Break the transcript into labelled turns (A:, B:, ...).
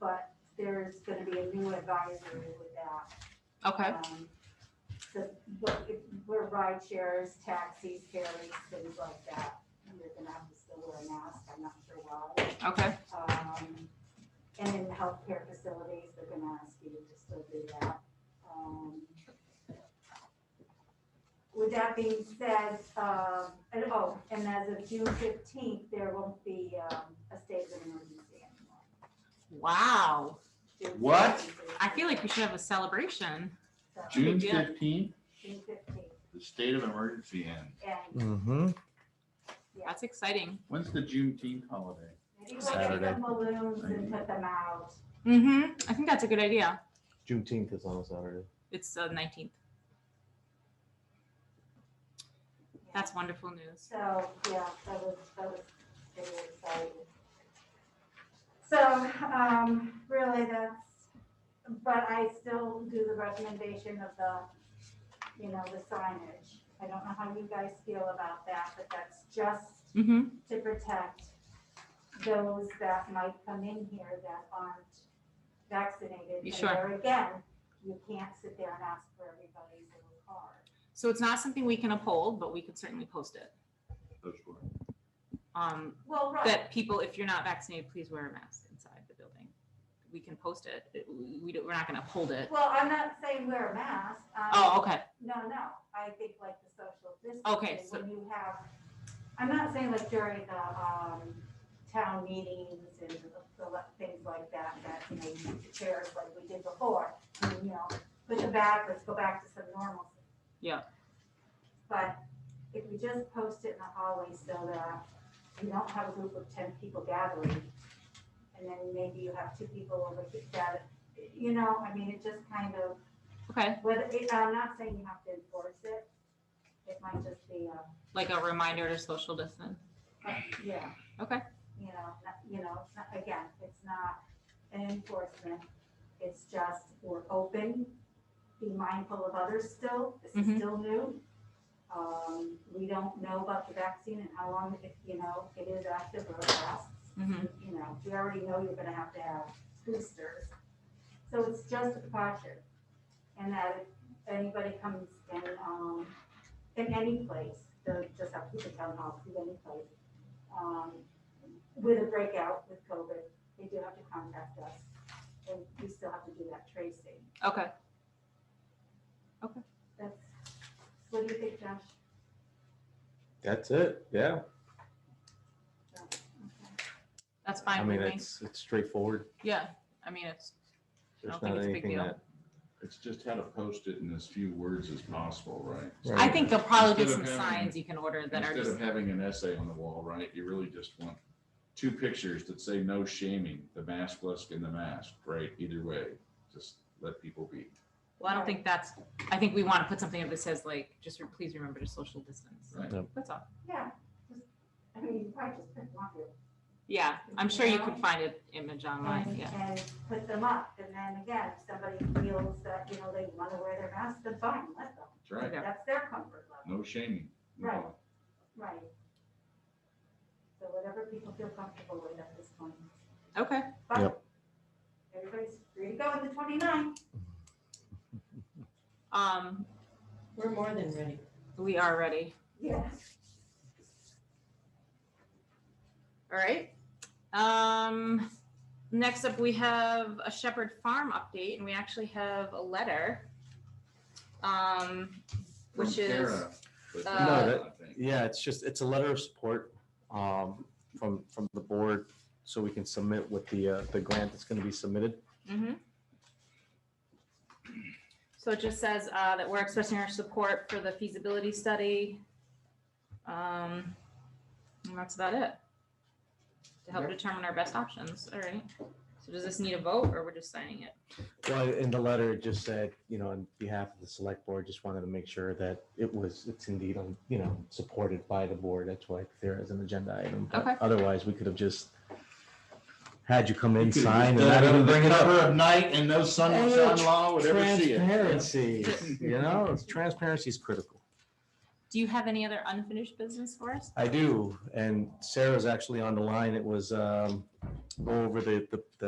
A: but there's gonna be a new advisory with that.
B: Okay,
A: Um, So, but if we're ride shares, taxis, ferries, things like that, you're gonna have to still wear a mask, I'm not sure why.
B: okay,
A: Um, and in healthcare facilities, they're gonna ask you to still do that. Um, With that being said, um, and oh, and as of June fifteenth, there won't be, um, a state of emergency anymore.
B: wow.
A: June
C: What?
A: 15th is-
B: I feel like we should have a celebration.
A: so,
C: June
B: Yeah.
C: fifteenth,
A: June fifteenth,
C: the state of emergency ends.
A: and
D: Mm-hmm.
B: That's exciting.
C: When's the Juneteenth holiday?
A: maybe we'll get
D: Saturday.
A: some balloons and put them out.
B: Mm-hmm, I think that's a good idea.
D: Juneteenth is on Saturday.
B: It's the nineteenth.
A: Yeah.
B: That's wonderful news.
A: So, yeah, that was, that was really exciting. So, um, really that's, but I still do the recommendation of the, you know, the signage. I don't know how you guys feel about that, but that's just
B: Mm-hmm,
A: to protect those that might come in here that aren't vaccinated.
B: You
A: And
B: sure?
A: there again, you can't sit there and ask for everybody's little card.
B: so it's not something we can uphold, but we could certainly post it.
C: Those were-
B: Um,
A: Well, right,
B: that people, if you're not vaccinated, please wear a mask inside the building. We can post it. It- we- We, don't- we're not gonna uphold it.
A: well, I'm not saying wear a mask. Um, I'm-
B: Oh, okay,
A: No, no, I think like the social
B: Okay,
A: distancing,
B: so-
A: when you have, I'm not saying like during the, um, town meetings and the, the le- things like that, that, you know, you use the chairs like we did before, and, you know, put them back, let's go back to some normalcy.
B: Yeah.
A: But if we just post it in the hallway so that you don't have a group of ten people gathering, and then maybe you have two people over here that, you know, I mean, it just kind of
B: okay,
A: whether, it- I'm not saying you have to enforce it. It might just be uh, a,
B: like a reminder to social distance.
A: yeah.
B: Okay.
A: You know, not- you know, it's not- again, it's not an enforcement. It's just, we're open, be mindful of others still. This is
B: Mhm.
A: still new. Um, we don't know about the vaccine and how long, it you know, it is active or it lasts.
B: Mm-hmm,
A: You know, we already know you're gonna have to have boosters. So it's just a precaution. And that if anybody comes in, um, in any place, the, just have to the town hall, to any place, um, with a breakout with COVID, they do have to contact us. And we still have to do that tracing.
B: okay.
A: That's, what do you think, Josh?
D: That's it. Yeah.
B: That's
D: I
B: fine
D: mean,
B: with me.
D: it's it's straightforward.
B: Yeah, I mean, it's, I
D: There's
B: don't think
D: not
B: it's a big
D: anything
B: deal.
D: that.
C: It's just how to post it in as few words as possible, right?
D: Right.
B: I think they'll probably be
C: Instead
B: some
C: of having-
B: signs you can order that are
C: Instead
B: just,
C: of having an essay on the wall, right, you really just want two pictures that say no shaming, the maskless and the mask, right? Either way, just let people be.
B: well, I don't think that's, I think we want to put something up that says like, just re- please remember to social distance.
C: Right.
D: Yep.
B: That's all.
A: Yeah, just, I mean, you probably just pick one.
B: Yeah, I'm sure you could find an image online,
A: and,
B: yeah.
A: and put them up. And then again, if somebody feels that, you know, they want to wear their mask, then fine, let them.
C: That's right.
B: Yeah.
A: That's their comfort level,
C: No shaming.
A: Right. right? So whatever people feel comfortable with at this point.
B: Okay,
A: But
D: Yep.
A: Everybody's free to go on the 29th.
B: um,
E: We're more than ready.
B: we are ready.
A: Yeah.
B: All right. Um, next up, we have a Shepherd Farm update, and we actually have a letter. Um,
C: From
B: Which is,
C: Tara, but-
B: uh,
D: No, that-
C: I think.
D: Yeah, it's just it's a letter of support um, from from the board, so we can submit with the uh, the grant that's going to be submitted.
B: mhm. So it just says, uh, that we're expressing our support for the feasibility study. Um, and that's about it. To help determine our best options, all right. So does this need a vote, or we're just signing it?
D: Well, in the letter, it just said, you know, on behalf of the select board, just wanted to make sure that it was it's indeed on you know supported by the board. That's why it's there as an agenda item. But
B: Okay.
D: Otherwise, we could have just had you come in,
C: You could've
D: sign, and
C: done
D: not
C: it
D: even
C: under the
D: bring it up.
C: cover Of night and no son,
D: Oh,
C: son-in-law would ever see it.
D: Transparency, you know, it's- transparency is critical.
B: Do you have any other unfinished business for us?
D: I do, and Sarah's actually on the line. It was, um, go over the, the, the